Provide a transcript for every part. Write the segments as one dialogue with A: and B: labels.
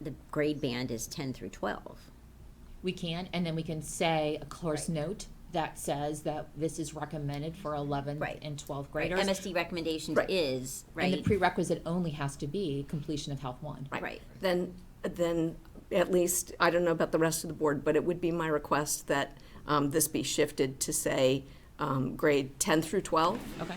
A: the grade band is ten through twelve.
B: We can, and then we can say a course note that says that this is recommended for eleventh
A: Right.
B: and twelfth
A: Right,
B: graders.
A: MSD recommendations
C: Right.
A: is,
B: And the
A: right,
B: prerequisite only has to be completion of Health One.
A: right,
C: Then, then at least, I don't know about the rest of the board, but it would be my request that um, this be shifted to say um, grade 10 through 12.
B: Okay.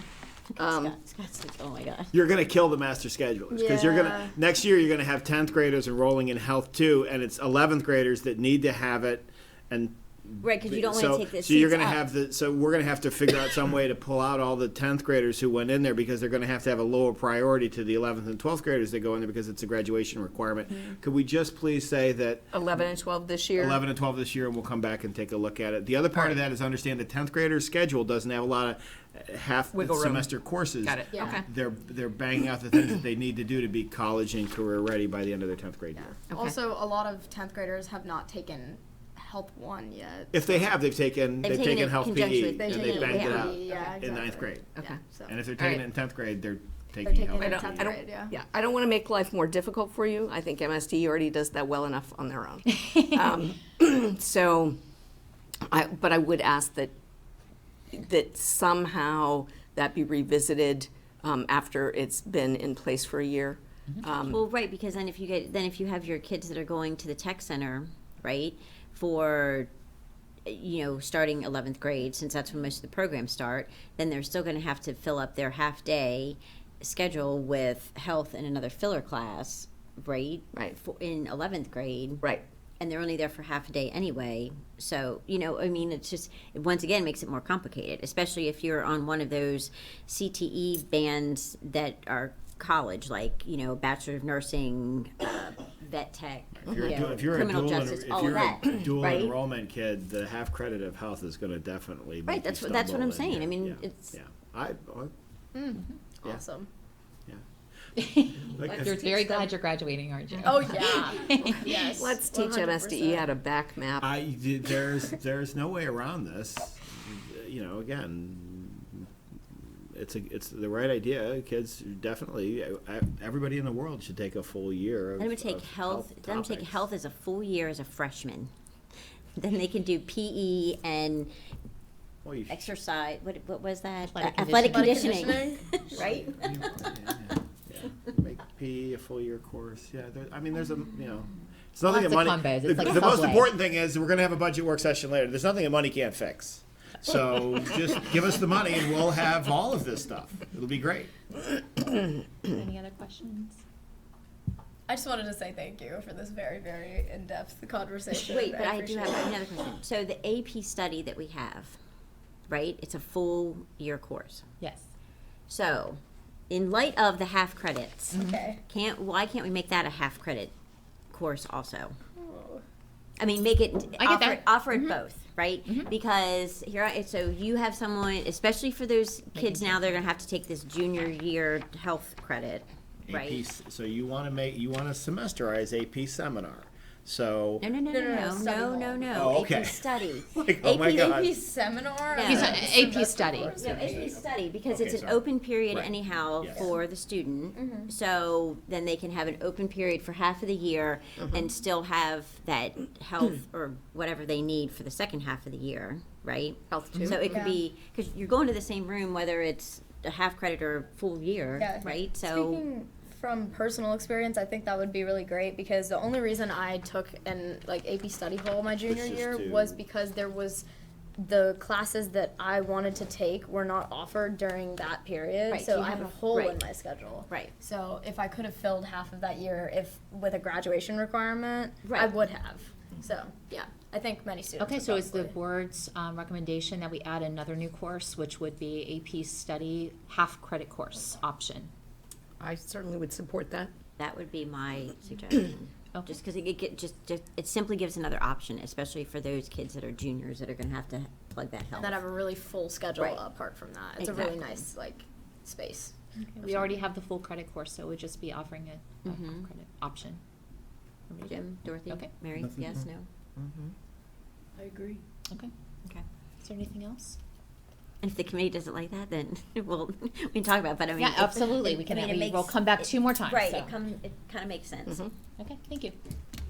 A: Scott- Scott's like, oh my god.
D: You're gonna kill the master schedulers because you're
C: Yeah.
D: gonna next year you're gonna have tenth graders enrolling in health two, and it's eleventh graders that need to have it, and
A: Right, because you don't
D: so
A: wanna take the
D: so you're
A: seats
D: gonna
A: up.
D: have the so we're gonna have to figure out some way to pull out all the tenth graders who went in there because they're gonna have to have a lower priority to the eleventh and twelfth graders that go in there because it's a graduation requirement.
A: Mm-hmm.
D: Could we just please say that
C: 11 and 12 this year.
D: 11 and 12 this year, and we'll come back and take a look at it. The other part of that is understand the 10th grader's schedule doesn't have a lot of uh, half
C: Wiggle room.
D: semester courses.
C: Got it. Yeah. Okay.
D: They're, they're banging out the things that they need to do to be college and career ready by the end of their 10th grade year.
E: Also, a lot of 10th graders have not taken Health 1 yet.
D: If they have, they've taken, they've
A: taken it
D: taken
A: in
D: health
A: conjunction
D: PE,
A: with
D: and
A: They've
D: they
A: taken
D: banged it
A: PE,
D: out
E: yeah,
D: in ninth
E: exactly.
D: grade.
E: Yeah, so.
D: And if they're taking
C: Alright.
D: it in 10th grade, they're
E: They're
D: taking
E: taking
D: health E.
E: it in
C: don't- I
E: 10th
C: don't-
E: grade, yeah.
C: Yeah, I don't want to make life more difficult for you. I think MSD already does that well enough on their own. Um, So, I, but I would ask that, that somehow that be revisited um, after it's been in place for a year. Um,
A: Well, right, because then if you get, then if you have your kids that are going to the tech center, right, for, you know, starting eleventh grade, since that's when most of the programs start, then they're still gonna have to fill up their half-day schedule with health and another filler class, right?
C: Right.
A: For, in eleventh grade.
C: Right.
A: And they're only there for half a day anyway, so, you know, I mean, it's just, it once again, makes it more complicated, especially if you're on one of those CTE bands that are college, like, you know, Bachelor of Nursing, uh, Vet Tech,
D: If you're,
A: you
D: a du-
A: know,
D: if you're a
A: criminal
D: dual, en-
A: justice,
D: if
A: all of
D: you're
A: that,
D: a dual
A: right?
D: enrollment kid, the half credit of health is going to definitely make
A: Right,
D: you
A: that's what- that's what
D: stumble
A: I'm
D: in
A: saying.
D: your-
A: I mean,
D: yeah,
A: it's-
D: yeah. I, I Yeah.
E: Awesome.
D: like, if-
B: You're very glad you're graduating, aren't you?
E: Oh, yeah. yes.
C: Let's teach
A: E
C: MSDE how to back map.
D: I there's there's no way around this. You know, again, it's a it's the right idea. Kids definitely. I, everybody in the world should take a full year. Of,
A: Let them take
D: of
A: health, let them take
D: topics.
A: health as a full year as a freshman. Then they can do PE and
D: Well, you-
A: exercise, what, what was that?
B: Athletic
A: Uh, Athletic
E: conditioning.
A: conditioning, right?
D: make PE a full year course. Yeah, there, I mean, there's a you know, it's nothing
B: Lots
D: that money.
B: of combos.
D: The,
B: It's like
D: the most
B: Subway.
D: important thing is we're gonna have a budget work session later. There's nothing that money can't fix. So just give us the money and we'll have all of this stuff. It'll be great.
B: Any other questions?
E: I just wanted to say thank you for this very, very in-depth conversation.
A: Wait, but I do
E: appreciate
A: have
E: it.
A: another question. So the AP study that we have, right, it's a full year course.
B: Yes.
A: So, in light of the half credits,
E: Okay.
A: can't, why can't we make that a half credit course also? Oh. I mean, make it
B: I get
A: offer,
B: that. Mm-hmm.
A: offer it both, right? Because here, I, so you have someone, especially for those kids now, they're gonna have to take this junior year health credit,
D: AP,
A: right?
D: s- so you want to make you want to semesterize AP seminar. So
A: No, no, no, no,
E: no,
A: no,
E: study
A: no,
E: hall.
A: no,
D: Oh,
A: no.
D: okay.
A: AP study.
D: Like, oh my
A: AP
D: God.
E: AP seminar?
A: Yeah. He's an
B: AP Uh, study.
A: No, AP study, because
D: Okay,
A: it's an
D: sorry.
A: open period
D: Right.
A: anyhow
D: Yes.
A: for the
E: Mm-hmm.
A: student. So then they can have an open period for half of the year
D: Mm-hmm.
A: and still have that health or whatever they need for the second half of the year, right?
C: Health
A: So it
E: Yeah.
A: could be, because you're going to the same room whether it's a half credit or full
E: Yeah.
A: year, right? So,
E: Speaking from personal experience, I think that would be really great because the only reason I took an like AP study hall my junior
D: just
E: year
D: to-
E: was because there was the classes that I wanted to take were not offered during that period.
A: Right,
E: so
A: you
E: I
A: have
E: had a
A: a-
E: hole in
A: right.
E: my schedule.
A: Right.
E: So if I could have filled half of that year if with a graduation requirement, I
A: Right.
E: would have. So yeah. I think many students.
B: Okay,
E: would
B: so is the
E: probably-
B: board's um, recommendation that we add another new course, which would be AP study half credit course option?
C: I certainly would support that.
A: that would be my suggestion.
B: Okay.
A: Just because it get, just, just, it simply gives another option, especially for those kids that are juniors that are gonna have to plug that health.
E: that have a really full schedule
A: Right.
E: apart from that. It's a really
A: Exactly.
E: nice like space.
B: We already have the full credit course, so we'd just be offering a a
A: Mm-hmm.
B: credit option. Everybody good?
A: Jim, Dorothy,
B: Okay. Mm-hmm.
A: Mary, yes, no?
B: Okay.
A: Okay.
B: Is there anything else?
A: And if the committee doesn't like that, then we'll, we can talk about, it, but I mean.
B: Yeah,
A: it-
B: absolutely. We
A: I
B: can,
A: mean, it
B: we will
A: makes-
B: come back two more times.
A: Right,
B: so. Mm-hmm.
A: Mm-hmm. it come, it kind of makes sense.
B: Okay, thank you.